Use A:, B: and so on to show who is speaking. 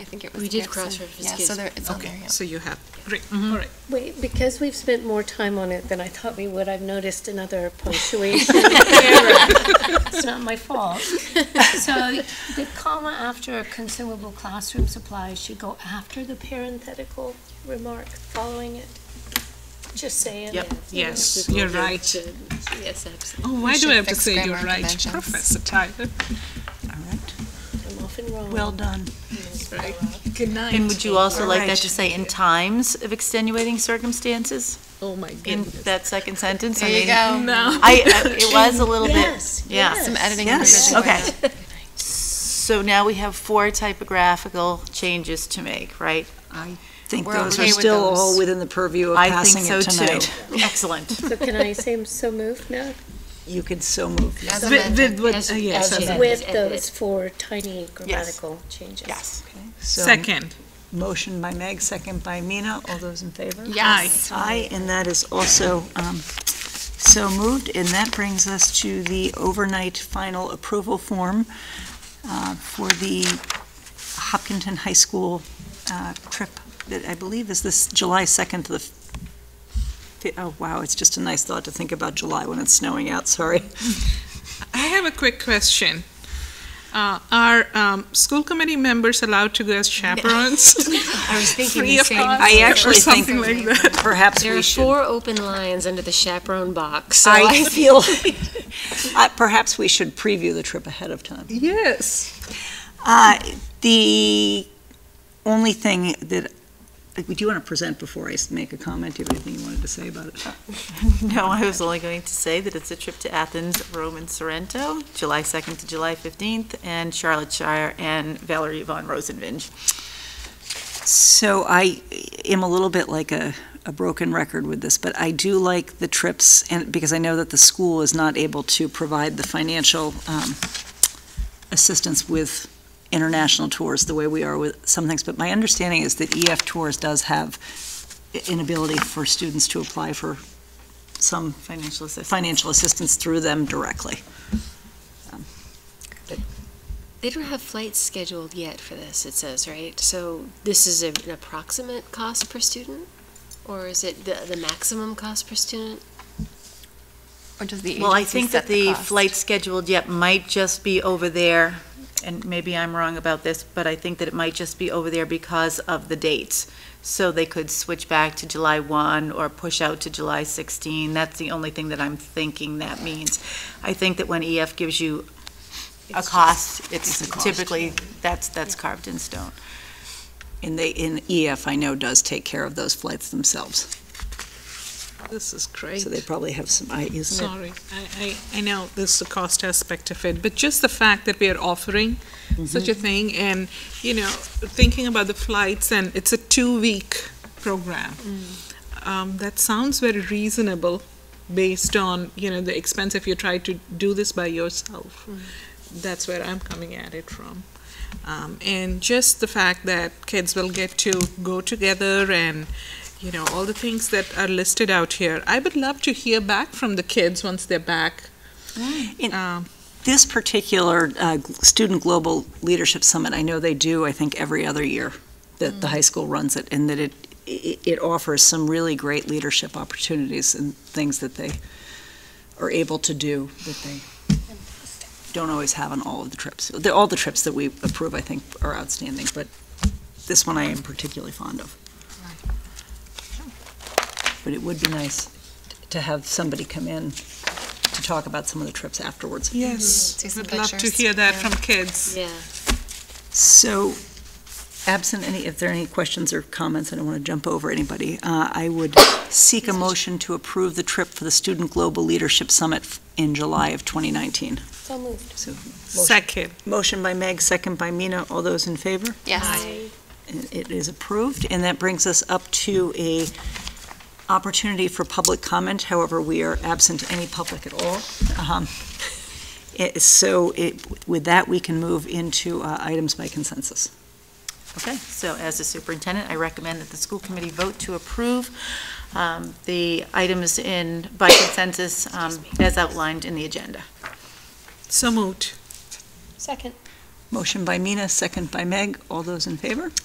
A: I think it was.
B: We did
A: Gibson.
B: cross-reference
A: Yeah, so
B: Gibson.
A: there, it's on there,
C: Okay,
A: yeah.
C: so you have, Mm-hmm. great, all right.
D: Wait, because we've spent more time on it than I thought we would, I've noticed another punctuation error. It's not my fault. So the comma after consumable classroom supplies should go after the parenthetical remark following it. Just saying.
C: Yep. Yes,
B: People
C: you're
B: get,
C: right.
B: uh, Yes, absolutely.
C: Oh, why
A: We
C: do I
A: should
C: have to
A: fix
C: say you're
A: grammar
C: right,
A: conventions.
C: Professor Tyler? All right,
D: I'm often wrong.
C: well done. Good night.
E: And would you also like that to
C: Alright.
E: say in times of extenuating circumstances?
C: Oh, my
E: In
C: goodness.
E: that second sentence?
A: There you go.
C: No.
E: I, I- it was a little bit,
D: Yes,
E: yeah.
D: yes.
A: Some editing
E: yes,
A: provisions.
E: okay. So now we have four typographical changes to make, right?
F: I think
A: We're
F: those
A: okay
F: are
A: with
F: still
A: those.
F: all within the purview of
E: I
F: passing
E: think so
F: it
E: too.
F: tonight.
E: Excellent.
D: So can I say I'm so moved now?
F: You can so move.
A: As
C: With-
A: amended.
C: with- with-
B: As-
C: uh, yes,
B: as
C: as
B: you-
C: a-
D: With
B: edited.
D: those four tiny grammatical changes.
E: Yes.
F: So,
C: Second,
F: Motion by Meg, second by Mina. All those in favor?
A: Yes.
F: Aye, and that is also um, so moved. And that brings us to the overnight final approval form uh, for the Hopkinton High School uh, trip that I believe is this July 2nd to the, fi- oh, wow, it's just a nice thought to think about July when it's snowing out, sorry.
C: I have a quick question. Uh, Are um, school committee members allowed to go as chaperones?
B: I was thinking
C: Free
B: the
C: of
B: same.
C: cost
F: I
B: thing.
F: actually
C: Or
F: think
C: something like that.
F: perhaps
B: There
F: we
B: are
F: should.
B: four open lines under the chaperone box, so
F: I
B: I
F: feel, Uh, perhaps we should preview the trip ahead of time.
C: Yes.
F: Uh, The only thing that, like, do you want to present before I s- make a comment? Do you have anything you wanted to say about it?
E: No, I was only going to say that it's a trip to Athens, Rome, and Sorrento, July 2nd to July 15th, and Charlotte Shire and Valerie von Rosenvinge.
F: So I am a little bit like a, a broken record with this, but I do like the trips, and, because I know that the school is not able to provide the financial um, assistance with international tours the way we are with some things, but my understanding is that EF Tours does have an ability for students to apply for some
E: Financial assistance.
F: financial assistance through them directly.
B: They don't have flights scheduled yet for this, it says, right? So this is a- an approximate cost per student? Or is it the, the maximum cost per student?
A: Or does the
E: Well, I
A: agency
E: think
A: set
E: that the
A: cost?
E: flight scheduled yet might just be over there, and maybe I'm wrong about this, but I think that it might just be over there because of the dates. So they could switch back to July 1 or push out to July 16. That's the only thing that I'm thinking that means. I think that when EF gives you a cost, it's
F: it's a cost.
E: typically, that's, that's carved in stone.
F: And they, in EF, I know, does take care of those flights themselves,
C: This is great.
F: so they probably have some, I- isn't it?
C: Sorry, I, I, I know there's the cost aspect of it, but just the fact that we are offering such
F: Mm-hmm.
C: a thing and, you know, thinking about the flights and it's a two-week program.
F: Mm.
C: Um, that sounds very reasonable based on, you know, the expense if you try to do this by yourself.
F: Mm.
C: That's where I'm coming at it from. Um, and just the fact that kids will get to go together and, you know, all the things that are listed out here. I would love to hear back from the kids once they're back.
F: And-
C: Um,
F: This particular uh, gl- Student Global Leadership Summit, I know they do, I think, every other year that the high school runs it, and that it, i- it offers some really great leadership opportunities and things that they are able to do that they don't always have on all of the trips. The- All the trips that we approve, I think, are outstanding, but this one I am particularly fond of. But it would be nice to have somebody come in to talk about some of the trips afterwards.
C: yes,
A: See some
C: would love to
A: pictures.
C: hear that
A: Yeah.
C: from kids.
B: Yeah.
F: So absent any, if there are any questions or comments, I don't want to jump over anybody. uh, I would seek a motion to approve the trip for the Student Global Leadership Summit in July of 2019.
D: So moved.
F: So
C: Second,
F: motion by Meg, second by Mina. All those in favor?
A: Yes.
F: And It is approved. And that brings us up to a opportunity for public comment. However, we are absent any public at all. Um, it- So it- with that, we can move into uh, items by consensus.
E: Okay, so as the superintendent, I recommend that the school committee vote to approve um, the items in, by consensus, um, as outlined in the agenda.
C: so moved.
D: Second.
F: Motion by Mina, second by Meg. All those in favor?